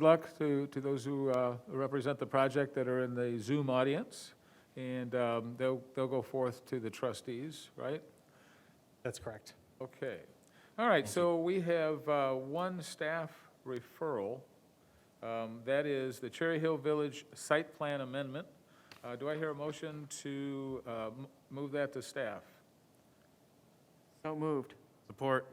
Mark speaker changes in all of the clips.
Speaker 1: Good luck to, to those who uh, represent the project that are in the Zoom audience, and um, they'll, they'll go forth to the trustees, right?
Speaker 2: That's correct.
Speaker 1: Okay. All right, so we have uh, one staff referral. Um, That is the Cherry Hill Village Site Plan Amendment. Uh, Do I hear a motion to uh, m- move that to staff?
Speaker 3: So moved.
Speaker 4: Support.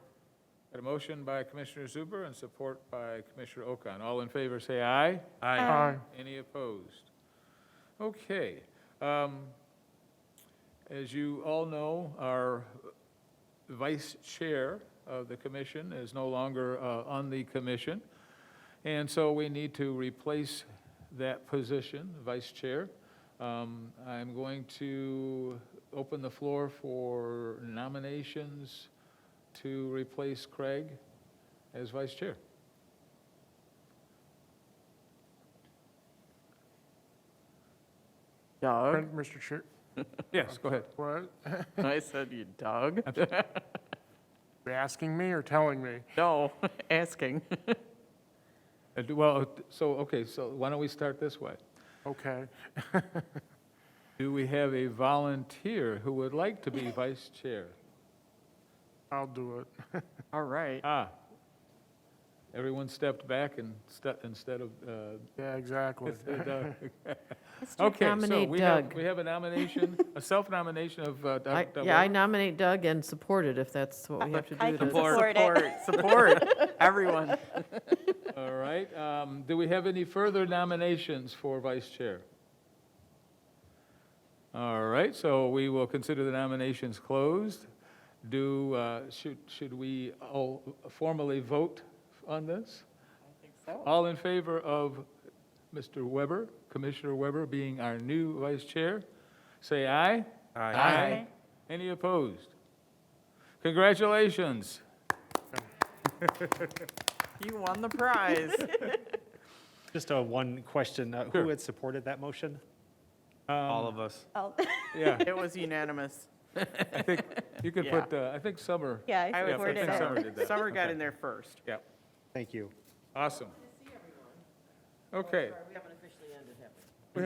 Speaker 1: Got a motion by Commissioner Zuber and support by Commissioner Okan. All in favor, say aye.
Speaker 4: Aye.
Speaker 1: Any opposed? Okay. um, As you all know, our vice chair of the commission is no longer uh, on the commission, and so we need to replace that position, vice chair. Um, I'm going to open the floor for nominations to replace Craig as vice chair.
Speaker 3: Doug?
Speaker 2: Mr. Chair,
Speaker 1: Yes, go ahead.
Speaker 2: what,
Speaker 3: I said you, Doug?
Speaker 2: you asking me or telling me?
Speaker 3: No, asking.
Speaker 1: Uh, do- Well, so, okay, so why don't we start this way?
Speaker 2: Okay.
Speaker 1: Do we have a volunteer who would like to be vice chair?
Speaker 2: I'll do it.
Speaker 3: All right.
Speaker 1: Ah, everyone stepped back and ste- instead of, uh,
Speaker 2: Yeah, exactly.
Speaker 1: Doug.
Speaker 5: Let's do
Speaker 1: Okay, so
Speaker 5: nominate
Speaker 1: we have,
Speaker 5: Doug.
Speaker 1: we have a nomination, a self-nomination of uh,
Speaker 5: I-
Speaker 1: Doug. Doug
Speaker 5: Yeah, I
Speaker 1: Wilk.
Speaker 5: nominate Doug and support it if that's what we have to
Speaker 6: Uh, I
Speaker 5: do
Speaker 6: can
Speaker 5: to.
Speaker 6: Support it.
Speaker 3: Support, Uh, support, everyone.
Speaker 1: All right, um, do we have any further nominations for vice chair? All right, so we will consider the nominations closed. Do, uh, should, should we all formally vote on this? All in favor of Mr. Weber, Commissioner Weber being our new vice chair? Say aye.
Speaker 6: Aye.
Speaker 1: Any opposed? Congratulations.
Speaker 3: You won the prize.
Speaker 7: Just a one question. uh, Who had supported that motion? Um,
Speaker 4: All of us.
Speaker 6: I'll-
Speaker 1: Yeah,
Speaker 3: It was unanimous.
Speaker 1: you could
Speaker 3: Yeah.
Speaker 1: put, uh, I think Summer,
Speaker 6: Yeah,
Speaker 3: I
Speaker 6: I
Speaker 3: would
Speaker 1: I
Speaker 6: supported
Speaker 1: think
Speaker 3: so.
Speaker 1: Summer
Speaker 6: it.
Speaker 1: did that.
Speaker 3: Summer got
Speaker 1: Okay.
Speaker 3: in there first.
Speaker 1: yeah.
Speaker 7: Thank you.
Speaker 1: Awesome. Okay. We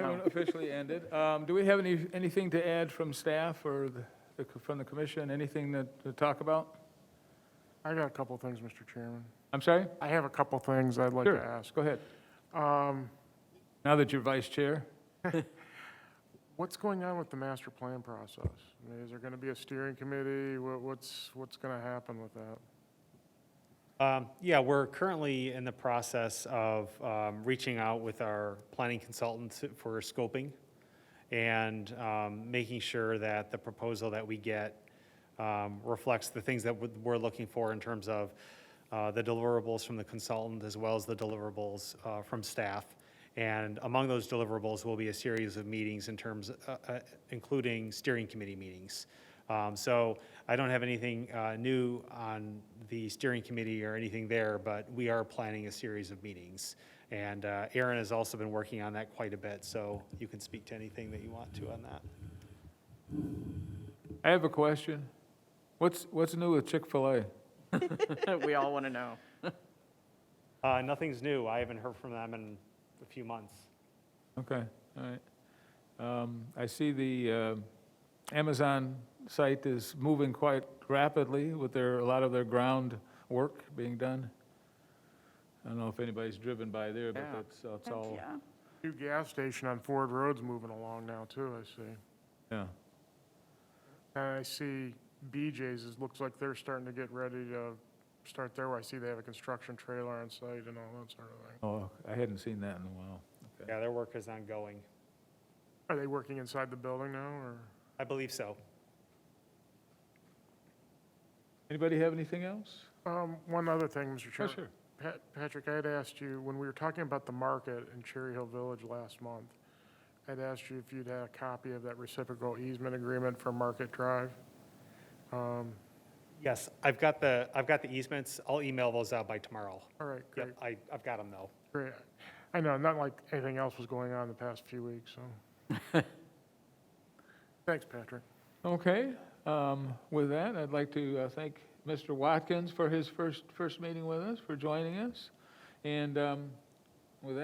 Speaker 1: haven't officially ended. Um, Do we have any, anything to add from staff or the- the co- from the commission? Anything to to talk about?
Speaker 2: I got a couple things, Mr. Chairman.
Speaker 1: I'm sorry?
Speaker 2: I have a couple things I'd like to
Speaker 1: Sure,
Speaker 2: ask.
Speaker 1: Go ahead.
Speaker 2: Um,
Speaker 1: Now that you're vice chair.
Speaker 2: What's going on with the master plan process? I mean, Is there going to be a steering committee? Wha- What's, what's going to happen with that?
Speaker 7: Um, Yeah, we're currently in the process of um, reaching out with our planning consultants for scoping and um, making sure that the proposal that we get um, reflects the things that we're- we're looking for in terms of uh, the deliverables from the consultant as well as the deliverables uh, from staff. And among those deliverables will be a series of meetings in terms, uh, uh, including steering committee meetings. Um, So I don't have anything uh, new on the steering committee or anything there, but we are planning a series of meetings. And uh, Aaron has also been working on that quite a bit, so you can speak to anything that you want to on that.
Speaker 1: I have a question. What's, what's new with Chick-fil-A?
Speaker 3: We all want to know.
Speaker 7: Uh, Nothing's new. I haven't heard from them in a few months.
Speaker 1: Okay, all right. Um, I see the uh, Amazon site is moving quite rapidly with their, a lot of their ground work being done. I don't know if anybody's driven by there, but
Speaker 3: Yeah.
Speaker 1: that's, that's all,
Speaker 6: Yeah.
Speaker 2: New gas station on Ford Road's moving along now, too, I see.
Speaker 1: yeah.
Speaker 2: And I see BJ's, is looks like they're starting to get ready to start there. I see they have a construction trailer on site and all that sort of thing.
Speaker 1: Oh, I hadn't seen that in a while. Okay.
Speaker 7: Yeah, their work is ongoing.
Speaker 2: Are they working inside the building now, or?
Speaker 7: I believe so.
Speaker 1: Anybody have anything else?
Speaker 2: Um, One other thing, Mr.
Speaker 1: Oh,
Speaker 2: Chairman. Pat- Patrick, I had asked you, when we were talking about the market in Cherry Hill Village last month, I'd asked you if you'd had a copy of that reciprocal easement agreement for Market Drive. Um,
Speaker 7: Yes, I've got the, I've got the easements. I'll email those out by tomorrow.
Speaker 2: All right, great,
Speaker 7: Yep, I, I've got them though.
Speaker 2: great. I know, not like anything else was going on the past few weeks, so. Thanks, Patrick.
Speaker 1: Okay, um, with that, I'd like to uh, thank Mr. Watkins for his first, first meeting with us, for joining us. And um,